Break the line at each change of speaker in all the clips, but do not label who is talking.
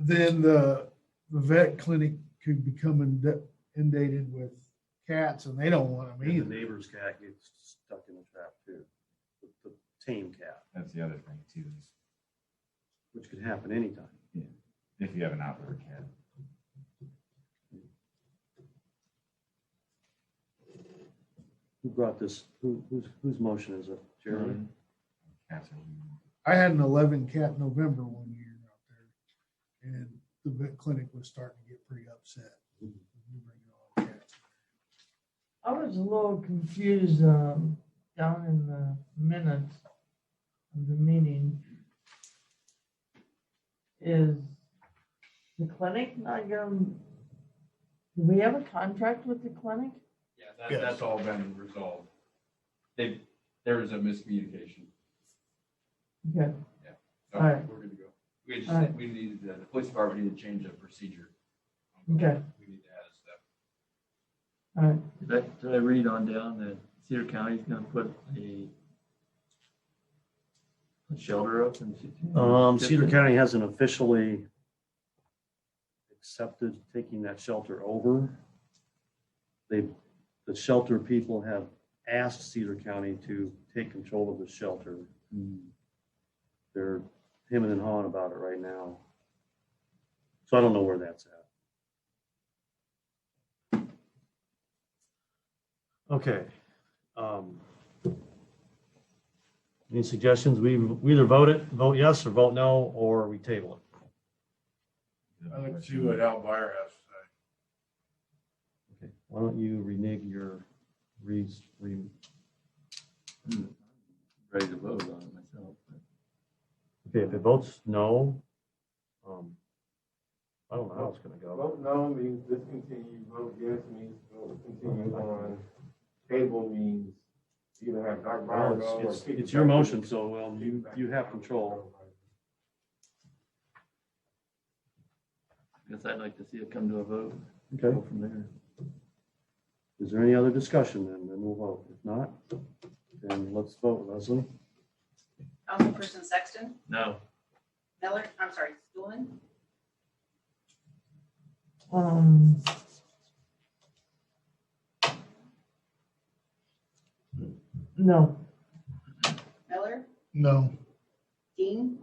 then the, the vet clinic could become ind- inundated with cats and they don't want them
And the
either.
neighbor's cat gets stuck in the trap too, the the tame cat,
That's the other thing too, is
which could happen anytime.
if you have an outdoor cat.
Who brought this, who, whose, whose motion is it? Jeremy?
Cats are weird.
I had an eleven cat November one year out there and the vet clinic was starting to get pretty upset. You
Mm-hmm.
bring all the cats.
I was a little confused um, down in the minutes of the meeting. Is the clinic not going, do we have a contract with the clinic?
Yeah, that, that's all been resolved. They, there was a miscommunication.
Okay,
So
All right.
We're good to go. We just,
All right.
we needed, the the police department needed to change the procedure.
Okay.
We need to add a step.
all right,
Did I, did I read on down that Cedar County's gonna put a a shelter up in?
Mm-hmm.
Ci-
Um, Cedar County hasn't officially accepted taking that shelter over. They, the shelter people have asked Cedar County to take control of the shelter.
Mm.
They're hemming and hawing about it right now. So I don't know where that's at.
Okay. um, Any suggestions? We we either vote it, vote yes, or vote no, or we table it.
I like to see what Alvire has to say.
Okay. Why don't you renege your, re re-
Hmm. Ready to vote on it myself, but
okay, if it votes no, um, I don't know how it's gonna go.
Vote no means discontinue, vote yes means vote continue on. Table means either have Doc Bauer go
Well,
or.
It's,
kick
it's
it
your
back to
motion,
the-
so, um, you, you have control.
I guess I'd like to see it come to a vote.
Okay.
Go From there.
Is there any other discussion then? Then we'll vote. If not, then let's vote. Leslie?
Councilperson Sexton,
No,
Miller, I'm sorry, Stulman,
um. No,
Miller,
No.
Dean,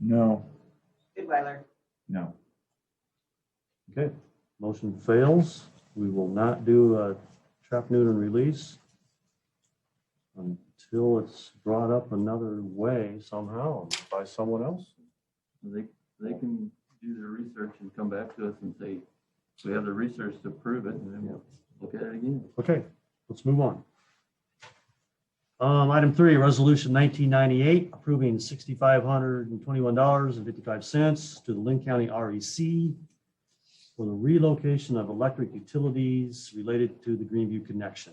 No.
Goodweiler.
No.
Okay, motion fails. We will not do a trap neuter release until it's brought up another way somehow by someone else.
they, they can do their research and come back to us and say, we have the research to prove it, and then we'll look at it again.
Okay, let's move on. Um, item three, resolution nineteen ninety-eight, approving sixty-five hundred and twenty-one dollars and fifty-five cents to the Lynn County REC for the relocation of electric utilities related to the Greenview connection.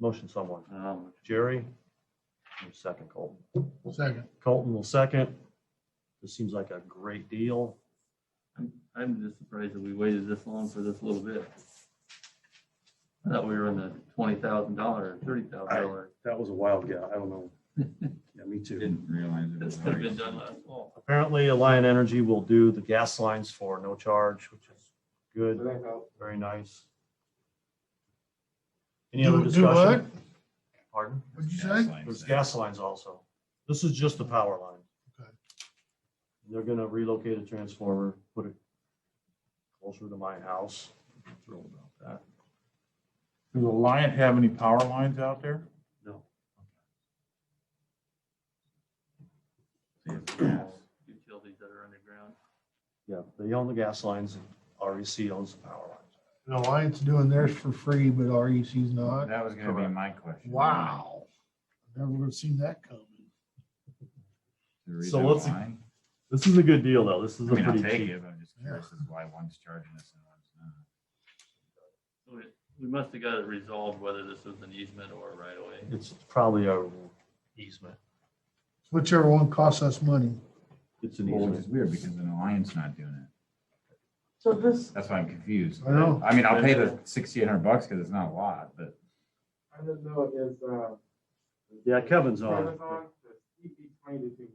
Motion someone.
Um,
Jerry? or Second, Colton.
Second.
Colton will second. This seems like a great deal.
I'm just surprised that we waited this long for this little bit. I thought we were in the twenty thousand dollar, thirty thousand dollar.
That was a wild guess. I don't know. Yeah, me too.
Didn't realize it was
This could have
already.
been done last fall.
Apparently, Alliant Energy will do the gas lines for no charge, which is good.
Does that help?
Very nice. Any
Do-
other
do
discussion? Pardon?
What'd you
Gas
say?
lines.
There's gas lines also. This is just the power line.
Okay.
They're gonna relocate a transformer, put it closer to my house. I'm Thrilled about
Does Alliant have any power lines out there?
See, it's gas.
Utilities that are underground.
that. Yeah, they own the gas lines and REC owns the power lines.
And Alliance doing theirs for free, but REC's not.
That was gonna be my question.
Wow. Never would have seen that coming.
The reason
So let's-
why?
This is a good deal though. This
I
is a
mean, I'll
pretty
take
cheap.
it, but I'm just curious as why one's charging us and one's not.
We we must have got it resolved whether this was an easement or a right of way.
It's probably a easement.
Whichever one costs us money.
It's an
Well, which
easement.
is weird because an alliance not doing it.
so this,
That's why I'm confused.
I know.
I mean, I'll pay the sixty-eight hundred bucks because it's not a lot, but
I don't know if, uh. E
Yeah, Kevin's on.
Kevin's on, but he explained it to me.